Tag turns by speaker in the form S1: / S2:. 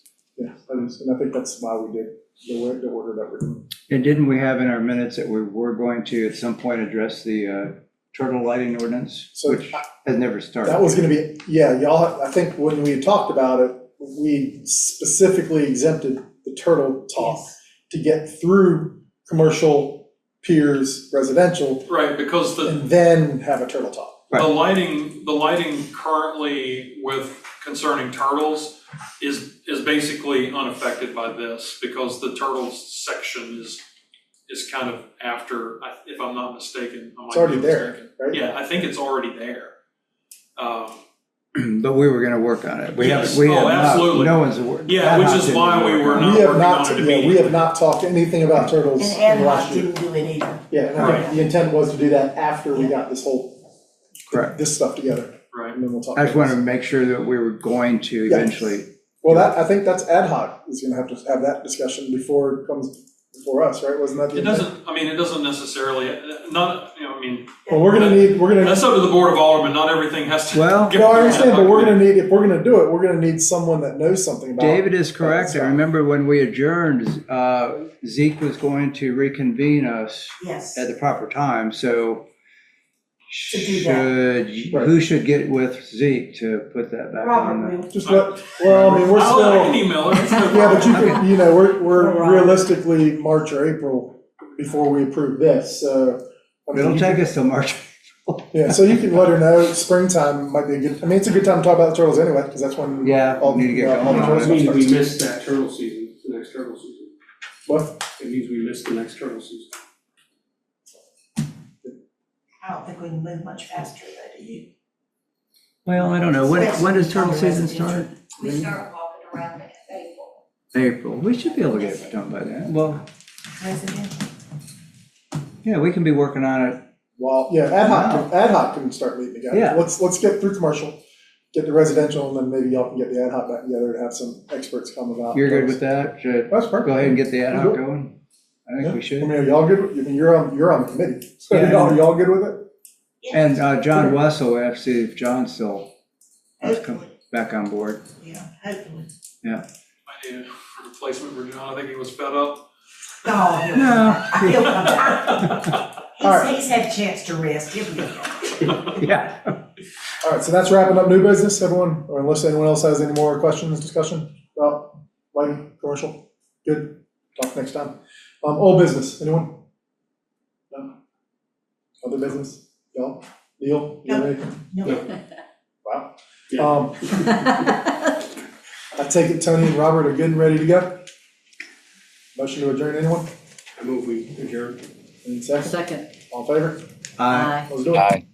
S1: attorneys, and I think that's why we did the way, the order that we're doing.
S2: And didn't we have in our minutes that we were going to at some point address the uh, turtle lighting ordinance,
S1: So
S2: which has never started?
S1: That was gonna be, yeah, y'all, I think when we talked about it, we specifically exempted the turtle talk to get through commercial, piers, residential,
S3: Right, because the,
S1: and then have a turtle talk.
S3: the lighting, the lighting currently with concerning turtles is, is basically unaffected by this, because the turtles section is, is kind of after, I- if I'm not mistaken. I might
S1: It's already
S3: be
S1: there,
S3: mistaken.
S1: right?
S3: Yeah, I think it's already there. Um,
S2: But we were gonna work on it. We haven't,
S3: Yes.
S2: we
S3: Oh,
S2: have not,
S3: absolutely.
S2: no one's. aware-
S3: Yeah, which is
S2: Adhoc
S3: why
S2: didn't
S3: we
S2: work
S3: were
S2: on
S3: not-
S2: it.
S1: We have
S3: working
S1: not,
S3: on it
S1: yeah, we
S3: immediately.
S1: have not talked anything about turtles
S4: And
S1: in the last
S4: Adhoc
S1: year.
S4: didn't do it either.
S1: Yeah, and I think the intent was to do that after we
S4: Yeah.
S1: got this whole,
S2: Correct.
S1: this stuff together,
S3: Right,
S1: and then we'll talk.
S2: I just
S1: about
S2: wanted
S1: this.
S2: to make sure that we were going to
S1: Yeah.
S2: eventually,
S1: Well, that, I think that's ad hoc, is gonna have to have that discussion before it comes before us, right? Wasn't that the
S3: it
S1: intent?
S3: doesn't, I mean, it doesn't necessarily, uh, not, you know, I mean,
S1: Well, we're gonna need, we're gonna,
S3: that's up to the Board of Aldermen, not everything has to.
S2: Well-
S3: get-
S1: no, I understand, but we're gonna need, if we're gonna do it, we're gonna need someone that knows something about.
S2: David is correct. I
S1: Right.
S2: remember when we adjourned, uh, Zeke was going to reconvene us
S4: Yes.
S2: at the proper time, so
S4: To do that.
S2: should,
S1: Right.
S2: who should get with Zeke to put that back on?
S4: Robert
S2: the-
S4: will.
S1: Just let, well, I mean, we're
S3: I'll- I can
S1: still,
S3: email her. it's no
S1: yeah, but you
S3: problem.
S1: could, you know, we're,
S4: We're
S1: we're
S4: on.
S1: realistically March or April before we approve this, so. I mean,
S2: It'll
S1: you
S2: take us till March.
S1: Yeah, so you can let her know springtime might be a good, I mean, it's a good time to talk about the turtles anyway, because that's when.
S2: Yeah,
S1: all
S2: need to get
S1: the- all the
S2: going on
S1: turtles
S2: it.
S5: It means we
S1: start.
S5: missed that turtle season, the next turtle season.
S1: What?
S5: It means we missed the next turtle season.
S2: Mm-hmm.
S4: I don't think we can move much faster, though, do you?
S2: Well, I don't know. When, when does turtle season start?
S6: We
S4: Mm-hmm.
S6: start walking around next April.
S2: April. We should be able to get it done by then. Well,
S4: Residential.
S2: yeah, we can be working on it.
S1: Well, yeah, ad hoc, can- ad hoc can start meeting again.
S2: Yeah.
S1: Let's, let's get through commercial, get the residential, and then maybe y'all can get the ad hoc back together and have some experts come about.
S2: You're good with that? Should
S1: That's perfect.
S2: go ahead and get the ad hoc
S1: We'll do
S2: going? I think we
S1: I
S2: should.
S1: mean, are y'all good, with- I mean, you're on, you're on the committee, so
S2: Yeah.
S1: y'all, y'all good with it?
S2: And uh, John Wessel, we have to see if John still has come
S4: Hopefully,
S2: back on board.
S4: yeah, hopefully.
S3: I need a replacement for John, I think he was fed up.
S4: No, he'll-
S2: No.
S4: he'll come back.
S1: All
S4: He's,
S1: right.
S4: he's had a chance to rest, he'll be back.
S2: Yeah.
S1: All right, so that's wrapping up new business, everyone, or unless anyone else has any more questions, discussion about lighting, commercial, good, talk next time. Um, old business, anyone? No? Other business, y'all, Neil, you have anything?
S4: No.
S1: Wow.
S5: Yeah.
S1: Um, I take it Tony and Robert are getting ready to go? Motion to adjourn, anyone?
S5: I move we adjourn.
S1: Any second,
S7: Second.
S1: all in favor,
S2: Uh,
S1: let's do it.